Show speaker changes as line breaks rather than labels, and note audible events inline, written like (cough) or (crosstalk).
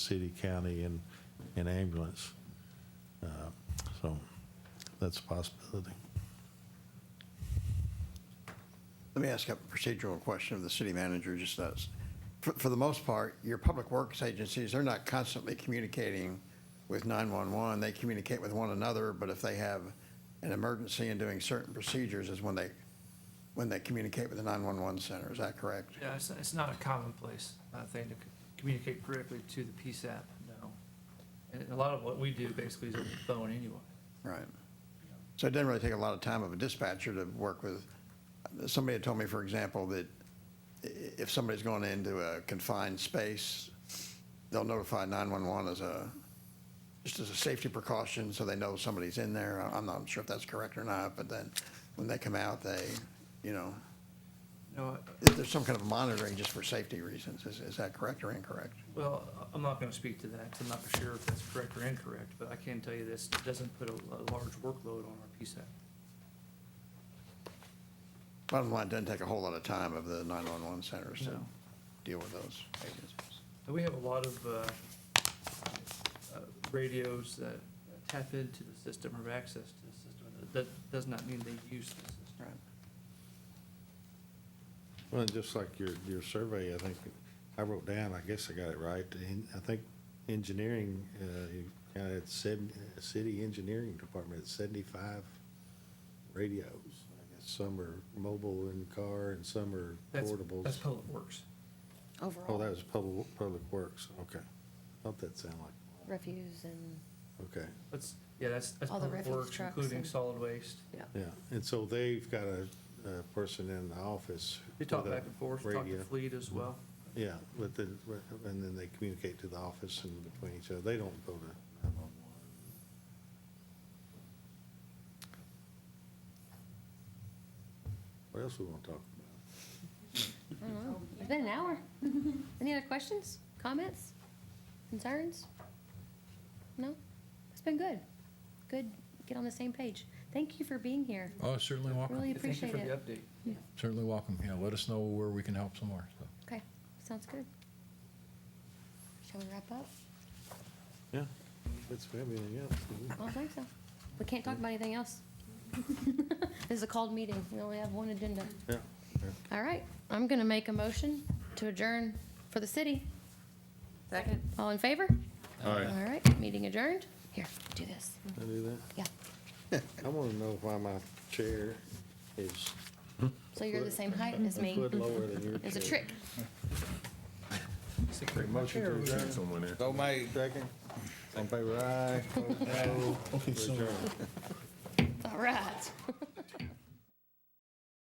city, county, and, and ambulance. Uh, So that's a possibility.
Let me ask a procedural question of the city manager, just us. For, for the most part, your public works agencies, they're not constantly communicating with 911. They communicate with one another, but if they have an emergency and doing certain procedures is when they, when they communicate with the 911 center. Is that correct?
Yeah, it's, it's not a commonplace uh, thing to c- communicate directly to the PSAP, no. And a lot of what we do basically is on the phone anyway.
Right. So it doesn't really take a lot of time of a dispatcher to work with, somebody had told me, for example, that i- if somebody's going into a confined space, they'll notify 911 as a, just as a safety precaution, so they know somebody's in there. I- I'm not sure if that's correct or not, but then when they come out, they, you know,
No,
if there's some kind of monitoring just for safety reasons. Is, is that correct or incorrect?
well, I- I'm not gonna speak to that, 'cause I'm not for sure if that's correct or incorrect, but I can tell you this, it doesn't put a, a large workload on our PSAP.
Bottom line, it doesn't take a whole lot of time of the 911 centers to
No.
deal with those agencies.
And we have a lot of, uh, uh, radios that tap into the system or have access to the system. That- That does not mean they use the system.
Right.
Well, and just like your, your survey, I think, I wrote down, I guess I got it right, and I think engineering, uh, you kind of said, uh, city engineering department, seventy-five radios. I guess Some are mobile in the car and some are
That's, that's
portables.
public works.
Oh,
overall
that was public, public works, okay. Thought that sounded like,
refuse and,
okay,
That's, yeah, that's, that's
All the
public
refuse
works,
trucks
including
and-
solid waste.
yeah.
yeah. And so they've got a, a person in the office.
We talk
with a
back and forth, talk
radio.
to Fleet as well.
Yeah, with the, and then they communicate to the office and between each other. They don't go to 911. What else we want to talk about?
I don't know. It's been an hour. (laughs) Any other questions, comments, concerns? No? It's been good. Good, get on the same page. Thank you for being here.
Oh, certainly welcome.
Really
Thank you
appreciate
for the
it.
update.
Certainly welcome. Yeah, let us know where we can help some more. so.
Okay, sounds good. Shall we wrap up?
Yeah, that's everything else.
I don't think so. We can't talk about anything else. (laughs) This is a called meeting. We only have one agenda.
Yeah,
All right, I'm gonna make a motion to adjourn for the city. Second. All in favor?
All right.
All right, meeting adjourned. Here, do this.
I do that.
Yeah,
I want to know why my chair is
so you're the same height as
a
me.
foot lower than your chair.
(laughs) It's a trick.
Motion to adjourn.
So made.
Second.
(laughs)
On favor, aye. Opposed, no. Adjourn.
All right.